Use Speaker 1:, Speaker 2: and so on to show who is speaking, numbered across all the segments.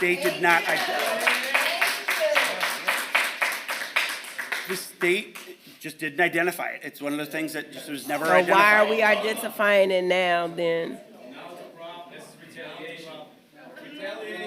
Speaker 1: They did not identify. The state just didn't identify it. It's one of those things that just was never
Speaker 2: So why are
Speaker 1: identified.
Speaker 2: we identifying it now then?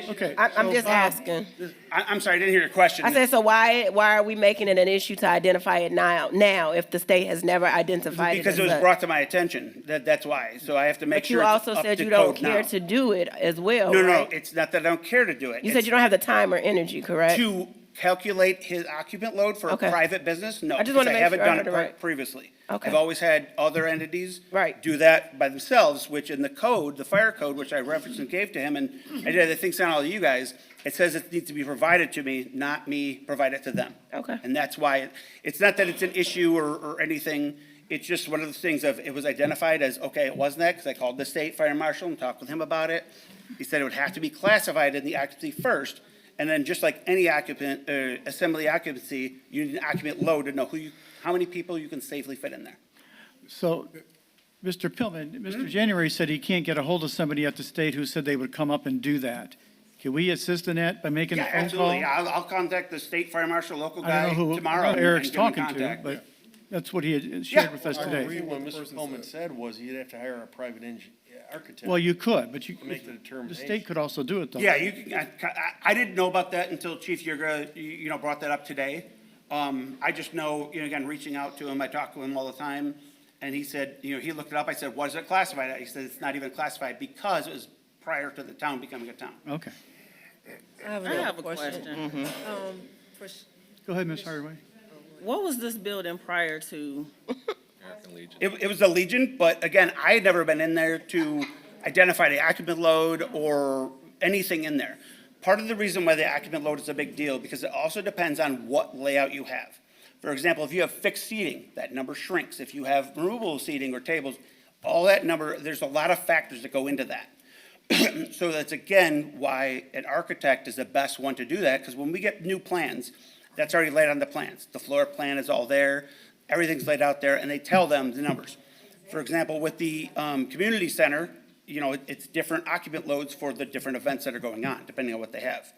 Speaker 3: Okay.
Speaker 2: I, I'm
Speaker 3: so,
Speaker 2: just
Speaker 3: um,
Speaker 2: asking.
Speaker 1: I, I'm sorry, I didn't hear your question.
Speaker 2: I said, so why, why are we making it an issue to identify it now, now if the state has never identified it
Speaker 1: Because
Speaker 2: as
Speaker 1: it was
Speaker 2: such?
Speaker 1: brought to my attention, that, that's why. So I have to make
Speaker 2: But
Speaker 1: sure
Speaker 2: you
Speaker 1: it's
Speaker 2: also
Speaker 1: up
Speaker 2: said
Speaker 1: to
Speaker 2: you don't
Speaker 1: code now.
Speaker 2: care to do it as well,
Speaker 1: No, no,
Speaker 2: right?
Speaker 1: it's not that I don't care to do it.
Speaker 2: You said
Speaker 1: It's
Speaker 2: you don't have the time or energy, correct?
Speaker 1: To calculate his occupant load for a
Speaker 2: Okay.
Speaker 1: private business? No.
Speaker 2: I just
Speaker 1: because
Speaker 2: wanna make
Speaker 1: haven't
Speaker 2: sure I
Speaker 1: done
Speaker 2: heard
Speaker 1: it
Speaker 2: it
Speaker 1: pre-
Speaker 2: right.
Speaker 1: Previously.
Speaker 2: Okay.
Speaker 1: I've always had other entities.
Speaker 2: Right.
Speaker 1: Do that by themselves, which in the code, the fire code, which I referenced and gave to him, and I did, I think, sent all of you guys, it says it needs to be provided to me, not me provide it to them.
Speaker 2: Okay.
Speaker 1: And that's why, it- it's not that it's an issue or, or anything, it's just one of those things of, it was identified as, okay, it wasn't that, because I called the state fire marshal and talked with him about it. He said it would have to be classified in the occupancy first, and then just like any occupant, uh, assembly occupancy, you need an occupant load to know who you, how many people you can safely fit in there.
Speaker 3: So, Mr. Pillman,
Speaker 1: Hmm?
Speaker 3: Mr. January said he can't get a hold of somebody at the state who said they would come up and do that. Can we assist in that by making a
Speaker 1: Yeah,
Speaker 3: phone call?
Speaker 1: absolutely, I'll, I'll contact the state fire marshal, local
Speaker 3: I
Speaker 1: guy
Speaker 3: don't know who- I don't know
Speaker 1: tomorrow. and-
Speaker 3: Eric's
Speaker 1: and give him
Speaker 3: talking to,
Speaker 1: contact.
Speaker 3: but that's what he had
Speaker 1: Yeah.
Speaker 3: shared with us
Speaker 4: I agree
Speaker 3: today.
Speaker 4: with what Mr. Coleman said was you'd have to hire a private engin, architect.
Speaker 3: Well, you could, but you,
Speaker 4: Make the
Speaker 3: the
Speaker 4: determination.
Speaker 3: state could also do it, though.
Speaker 1: Yeah, you, can- I, I- I didn't know about that until Chief Yurga, you, you know, brought that up today. Um, I just know, you know, again, reaching out to him, I talk to him all the time, and he said, you know, he looked it up, I said, what is it classified at? He said, it's not even classified because it was prior to the town becoming a town.
Speaker 3: Okay.
Speaker 5: I have a question. Um, for s-
Speaker 3: Go ahead, Ms. Hardaway.
Speaker 5: What was this building prior to?
Speaker 1: It, it was the Legion, but again, I had never been in there to identify the occupant load or anything in there. Part of the reason why the occupant load is a big deal, because it also depends on what layout you have. For example, if you have fixed seating, that number shrinks. If you have removable seating or tables, all that number, there's a lot of factors that go into that. So that's again why an architect is the best one to do that, because when we get new plans, that's already laid on the plans. The floor plan is all there, everything's laid out there, and they tell them the numbers. For example, with the, um, community center, you know, it- it's different occupant loads for the different events that are going on, depending on what they have.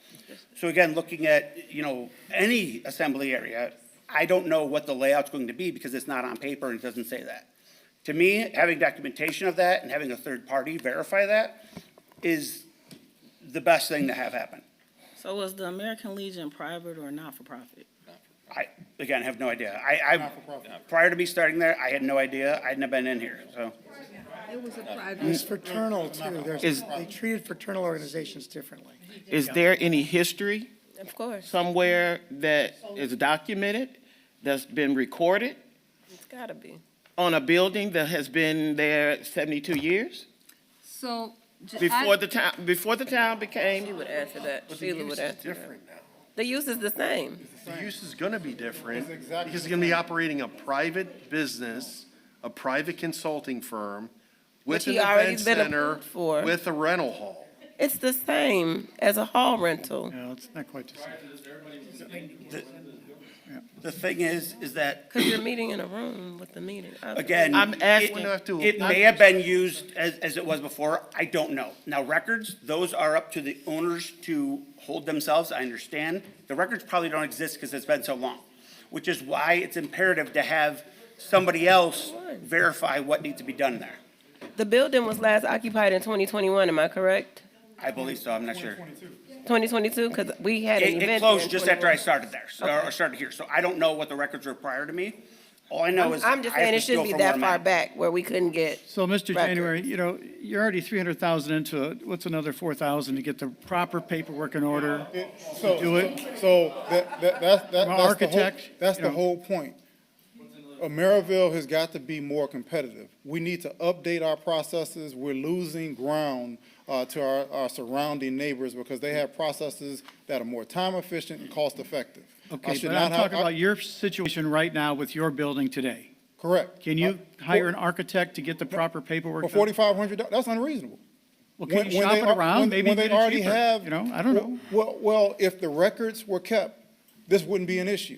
Speaker 1: So again, looking at, you know, any assembly area, I don't know what the layout's going to be because it's not on paper and it doesn't say that. To me, having documentation of that and having a third party verify that is the best thing to have happen.
Speaker 5: So was the American Legion private or not-for-profit?
Speaker 1: I, again, have no idea. I, I, prior to me starting there, I had no idea. I hadn't been in here, so.
Speaker 6: It was a private. It's fraternal too. There's,
Speaker 7: Is-
Speaker 6: they treated fraternal organizations differently.
Speaker 7: Is there any history
Speaker 2: Of course,
Speaker 7: somewhere that is documented, that's been recorded
Speaker 2: it's gotta be.
Speaker 7: on a building that has been there 72 years?
Speaker 8: So. j- I-
Speaker 7: Before the town, before the town became,
Speaker 2: She would answer that, Sheila would answer that.
Speaker 4: Different now.
Speaker 2: The use is the same.
Speaker 4: The use is gonna be different.
Speaker 6: It's exactly-
Speaker 4: Because it's gonna be operating a private business, a private consulting firm
Speaker 2: Which
Speaker 4: with an
Speaker 2: he already
Speaker 4: event
Speaker 2: been
Speaker 4: center,
Speaker 2: approved for.
Speaker 4: with a rental hall.
Speaker 2: It's the same as a hall rental.
Speaker 3: No, it's not quite the same.
Speaker 1: The thing is, is that,
Speaker 2: Because you're meeting in a room with the meeting. I-
Speaker 1: again.
Speaker 7: I'm
Speaker 1: it-
Speaker 7: asking-
Speaker 4: Wouldn't have to-
Speaker 1: It may have been used as, as it was before. I don't know. Now, records, those are up to the owners to hold themselves. I understand. The records probably don't exist because it's been so long, which is why it's imperative to have somebody else verify what needs to be done there.
Speaker 2: The building was last occupied in 2021, am I correct?
Speaker 1: I believe so. I'm not sure.
Speaker 2: 2022, because we had an
Speaker 1: It,
Speaker 2: event.
Speaker 1: it
Speaker 2: there in
Speaker 1: closed just after I
Speaker 2: 21.
Speaker 1: started there, so- or started here, so I don't know what the records were prior to me. All I know is.
Speaker 2: I'm just
Speaker 1: I have
Speaker 2: saying
Speaker 1: to
Speaker 2: it
Speaker 1: go
Speaker 2: shouldn't be
Speaker 1: from where
Speaker 2: that
Speaker 1: I'm
Speaker 2: far
Speaker 1: at.
Speaker 2: back where we couldn't get.
Speaker 3: So, Mr.
Speaker 2: records.
Speaker 3: January, you know, you're already 300,000 into it. What's another 4,000 to get the proper paperwork in order?
Speaker 9: So,
Speaker 3: Do it.
Speaker 9: so that, that,
Speaker 3: From
Speaker 9: that's, that- that's the whole,
Speaker 3: architect,
Speaker 9: that's
Speaker 3: you
Speaker 9: the
Speaker 3: know.
Speaker 9: whole point. Maryville has got to be more competitive. We need to update our processes. We're losing ground, uh, to our, our surrounding neighbors because they have processes that are more time efficient and cost effective. I
Speaker 3: Okay,
Speaker 9: should
Speaker 3: but I'm
Speaker 9: not have-
Speaker 3: talking about your situation right now with your building today.
Speaker 9: Correct.
Speaker 3: Can
Speaker 9: Uh,
Speaker 3: you
Speaker 9: for-
Speaker 3: hire an architect to get the proper paperwork?
Speaker 9: For
Speaker 3: done?
Speaker 9: forty-five hundred, that's unreasonable.
Speaker 3: Well, can
Speaker 9: When-
Speaker 3: you
Speaker 9: when
Speaker 3: shop
Speaker 9: they
Speaker 3: it
Speaker 9: al-
Speaker 3: around,
Speaker 9: when-
Speaker 3: maybe
Speaker 9: when
Speaker 3: get
Speaker 9: they
Speaker 3: it
Speaker 9: already
Speaker 3: cheaper,
Speaker 9: have-
Speaker 3: you know? I don't know.
Speaker 9: Well, well, if the records were kept, this wouldn't be an issue.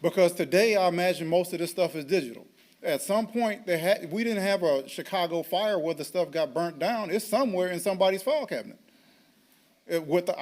Speaker 9: Because today, I imagine most of this stuff is digital. At some point, they had, we didn't have a Chicago fire where the stuff got burnt down. It's somewhere in somebody's file cabinet. uh, with the